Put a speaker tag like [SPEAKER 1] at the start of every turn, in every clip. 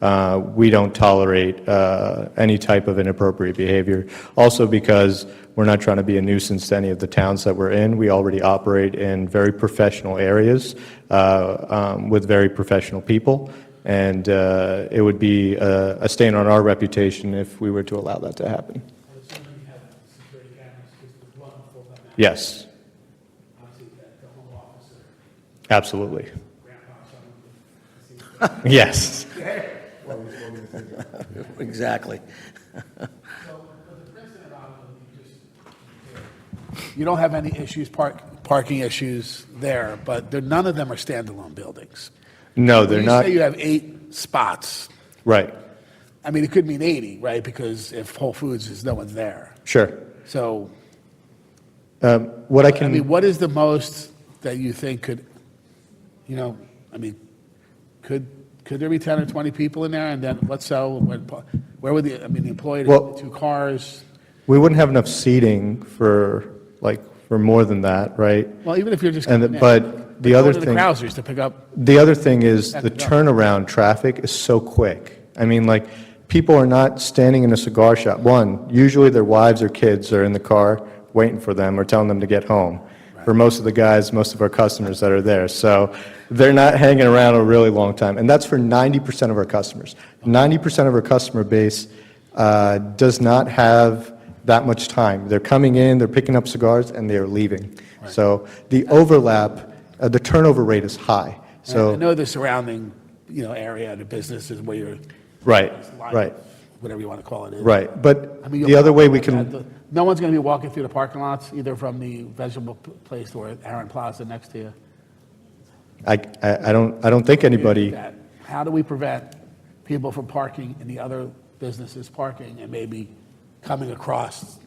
[SPEAKER 1] uh, we don't tolerate uh, any type of inappropriate behavior. Also because we're not trying to be a nuisance to any of the towns that we're in. We already operate in very professional areas uh, um, with very professional people, and uh, it would be a a stain on our reputation if we were to allow that to happen.
[SPEAKER 2] I assume you have security cameras, because there's one full-time,
[SPEAKER 1] Yes,
[SPEAKER 2] obviously, that the home office or
[SPEAKER 1] absolutely.
[SPEAKER 2] grandpa, someone would see.
[SPEAKER 1] Yes.
[SPEAKER 3] Exactly.
[SPEAKER 2] So, but the precedent of it, you just,
[SPEAKER 4] You don't have any issues, park, parking issues there, but they're, none of them are standalone buildings.
[SPEAKER 1] No, they're
[SPEAKER 4] When
[SPEAKER 1] not,
[SPEAKER 4] You say you have eight spots.
[SPEAKER 1] right,
[SPEAKER 4] I mean, it could mean 80, right? Because if Whole Foods is, no one's there.
[SPEAKER 1] sure.
[SPEAKER 4] So,
[SPEAKER 1] What I
[SPEAKER 4] I mean,
[SPEAKER 1] can,
[SPEAKER 4] what is the most that you think could, you know, I mean, could, could there be 10 or 20 people in there? And then what so, when pa- where would the, I mean, the employee,
[SPEAKER 1] Well-
[SPEAKER 4] two cars?
[SPEAKER 1] we wouldn't have enough seating for, like, for more than that, right?
[SPEAKER 4] Well, even if you're just.
[SPEAKER 1] And, the-
[SPEAKER 4] coming in,
[SPEAKER 1] but the
[SPEAKER 4] go
[SPEAKER 1] other
[SPEAKER 4] to
[SPEAKER 1] thing.
[SPEAKER 4] The Krausers to pick up,
[SPEAKER 1] The other thing is the
[SPEAKER 4] Back it up.
[SPEAKER 1] turnaround traffic is so quick. I mean, like, people are not standing in a cigar shop. One, usually their wives or kids are in the car waiting for them or telling them to get home. For most of the guys, most of our customers that are there. So they're not hanging around a really long time. And that's for 90% of our customers. 90% of our customer base uh, does not have that much time. They're coming in, they're picking up cigars, and they're leaving. So the overlap, uh, the turnover rate is high.
[SPEAKER 4] I
[SPEAKER 1] So,
[SPEAKER 4] know the surrounding, you know, area, the businesses where you're.
[SPEAKER 1] right,
[SPEAKER 4] line,
[SPEAKER 1] right,
[SPEAKER 4] Whatever you want to call it. is.
[SPEAKER 1] right. But
[SPEAKER 4] I mean,
[SPEAKER 1] the
[SPEAKER 4] you'll-
[SPEAKER 1] other way we can,
[SPEAKER 4] No one's going to be walking through the parking lots, either from the vegetable p- place or Aaron Plaza next to you.
[SPEAKER 1] I, I I don't, I don't think anybody,
[SPEAKER 4] That- How do we prevent people from parking in the other businesses parking and maybe coming across?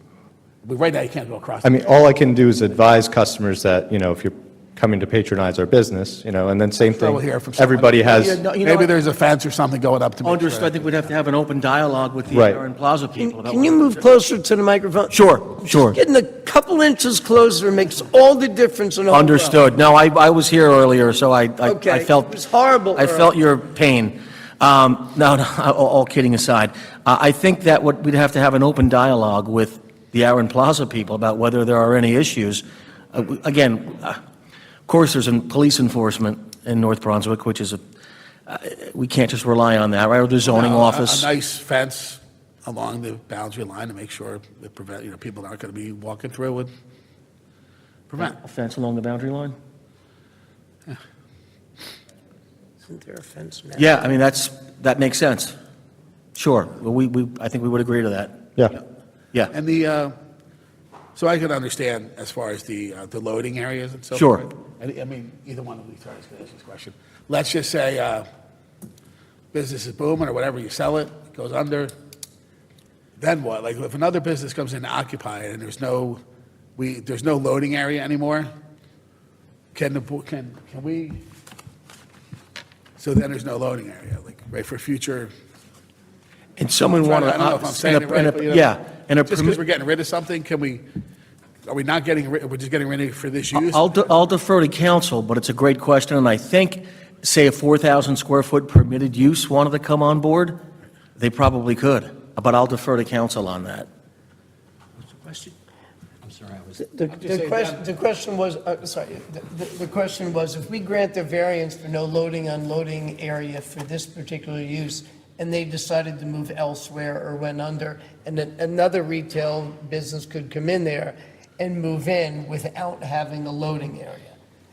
[SPEAKER 4] But Right now, you can't go across.
[SPEAKER 1] I mean, all I can do is advise customers that, you know, if you're coming to patronize our business, you know, and then same
[SPEAKER 4] Sure,
[SPEAKER 1] thing.
[SPEAKER 4] we'll hear from someone.
[SPEAKER 1] Everybody has,
[SPEAKER 3] No, you know
[SPEAKER 4] Maybe
[SPEAKER 3] what?
[SPEAKER 4] there's a fence or something going up to make
[SPEAKER 3] Understood, I
[SPEAKER 4] sure. Uh,
[SPEAKER 3] think we'd have to have an open dialogue with the
[SPEAKER 1] Right.
[SPEAKER 3] Aaron Plaza people. about
[SPEAKER 5] Can you
[SPEAKER 3] what-
[SPEAKER 5] move closer to the microphone?
[SPEAKER 3] Sure, sure.
[SPEAKER 5] Getting a couple inches closer makes all the difference in the whole world.
[SPEAKER 3] Understood. No, I, I was here earlier, so I, I- I
[SPEAKER 5] Okay.
[SPEAKER 3] felt.
[SPEAKER 5] It was horrible
[SPEAKER 3] I felt your pain. Um, no, no, all, all kidding aside, uh, I, I think that what, we'd have to have an open dialogue with the Aaron Plaza people about whether there are any issues. Uh, w- Again, uh, of course, there's an police enforcement in North Brunswick, which is a, uh, we can't just rely on that, right, or the zoning
[SPEAKER 4] Now, a-
[SPEAKER 3] office.
[SPEAKER 4] A nice fence along the boundary line to make sure that prevent, you know, people aren't going to be walking through and prevent.
[SPEAKER 3] A Fence along the boundary line?
[SPEAKER 5] Isn't there a fence now?
[SPEAKER 3] Yeah, I mean, that's, that makes sense. Sure, Well, we, we, I think we would agree to that.
[SPEAKER 1] yeah,
[SPEAKER 3] Yeah.
[SPEAKER 4] And the, uh, so I could understand as far as the, uh, the loading areas and so
[SPEAKER 3] Sure.
[SPEAKER 4] forth. I I mean, either one of these guys could ask this question. Let's just say uh, business is booming or whatever, you sell it, it goes under, then what? Like if another business comes in to occupy it and there's no, we, there's no loading area anymore, can the, bo- can, can we? So then there's no loading area, like, right, for future,
[SPEAKER 3] And someone
[SPEAKER 4] Trying to-
[SPEAKER 3] wanted.
[SPEAKER 4] I don't know if I'm saying uh, it right, but you know,
[SPEAKER 3] Yeah, and a
[SPEAKER 4] Just because we're
[SPEAKER 3] permit,
[SPEAKER 4] getting rid of something, can we, are we not getting, rid? we're just getting rid of it for this use?
[SPEAKER 3] I'll, de- I'll defer to council, but it's a great question, and I think, say, a 4,000 square foot permitted use wanted to come on board, they probably could, but I'll defer to council on that.
[SPEAKER 5] The, the question, the question was, uh, sorry, the, the- the question was, if we grant the variance for no loading, unloading area for this particular use, and they decided to move elsewhere or went under, and then another retail business could come in there and move in without having a loading area.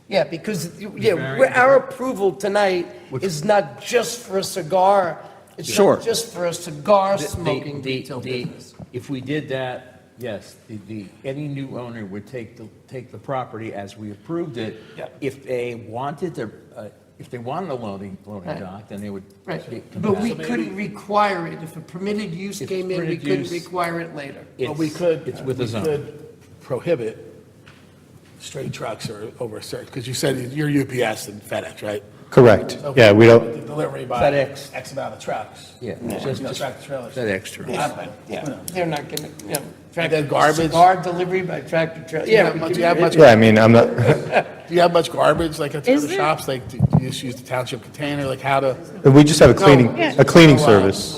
[SPEAKER 5] Yeah, because, yeah, we're- our approval tonight is not just for a cigar, it's
[SPEAKER 3] Sure.
[SPEAKER 5] not just for a cigar
[SPEAKER 6] The- the-
[SPEAKER 5] smoking
[SPEAKER 6] the-
[SPEAKER 5] retail
[SPEAKER 6] the-
[SPEAKER 5] business.
[SPEAKER 6] If we did that, yes, the, the, any new owner would take the, take the property as we approved it. If they wanted to, uh, if they wanted a loading, loading
[SPEAKER 5] Right.
[SPEAKER 6] dock, then they would. get-
[SPEAKER 5] Right,
[SPEAKER 6] come
[SPEAKER 5] but
[SPEAKER 6] back.
[SPEAKER 5] we couldn't require it. If a permitted use
[SPEAKER 6] If
[SPEAKER 5] came in, we
[SPEAKER 6] permitted
[SPEAKER 5] couldn't
[SPEAKER 6] use-
[SPEAKER 5] require it later.
[SPEAKER 4] But we
[SPEAKER 6] It's-
[SPEAKER 4] could.
[SPEAKER 6] It's with
[SPEAKER 4] we
[SPEAKER 6] a zone.
[SPEAKER 4] could Prohibit straight trucks or over a certain, because you said you're UPS and FedEx, right?
[SPEAKER 1] Correct. Yeah, we don't,
[SPEAKER 4] The delivery by
[SPEAKER 6] FedEx.
[SPEAKER 4] X amount of trucks.
[SPEAKER 6] Yeah,
[SPEAKER 4] You
[SPEAKER 6] just-
[SPEAKER 4] know, tractor trailers.
[SPEAKER 6] That extra.
[SPEAKER 4] Happened.
[SPEAKER 5] Yeah, they're not gonna, you know.
[SPEAKER 4] then garbage.
[SPEAKER 5] Cigar delivery by tractor trailer.
[SPEAKER 4] Do you have much- do you have much-
[SPEAKER 1] yeah, I mean, I'm not,
[SPEAKER 4] Do you have much garbage, like at the
[SPEAKER 7] Is
[SPEAKER 4] other
[SPEAKER 7] there-
[SPEAKER 4] shops, like, do you just use the township container, like how to?
[SPEAKER 1] we just have a cleaning,
[SPEAKER 4] Yeah.
[SPEAKER 1] a cleaning
[SPEAKER 4] Oh, wow.
[SPEAKER 1] service.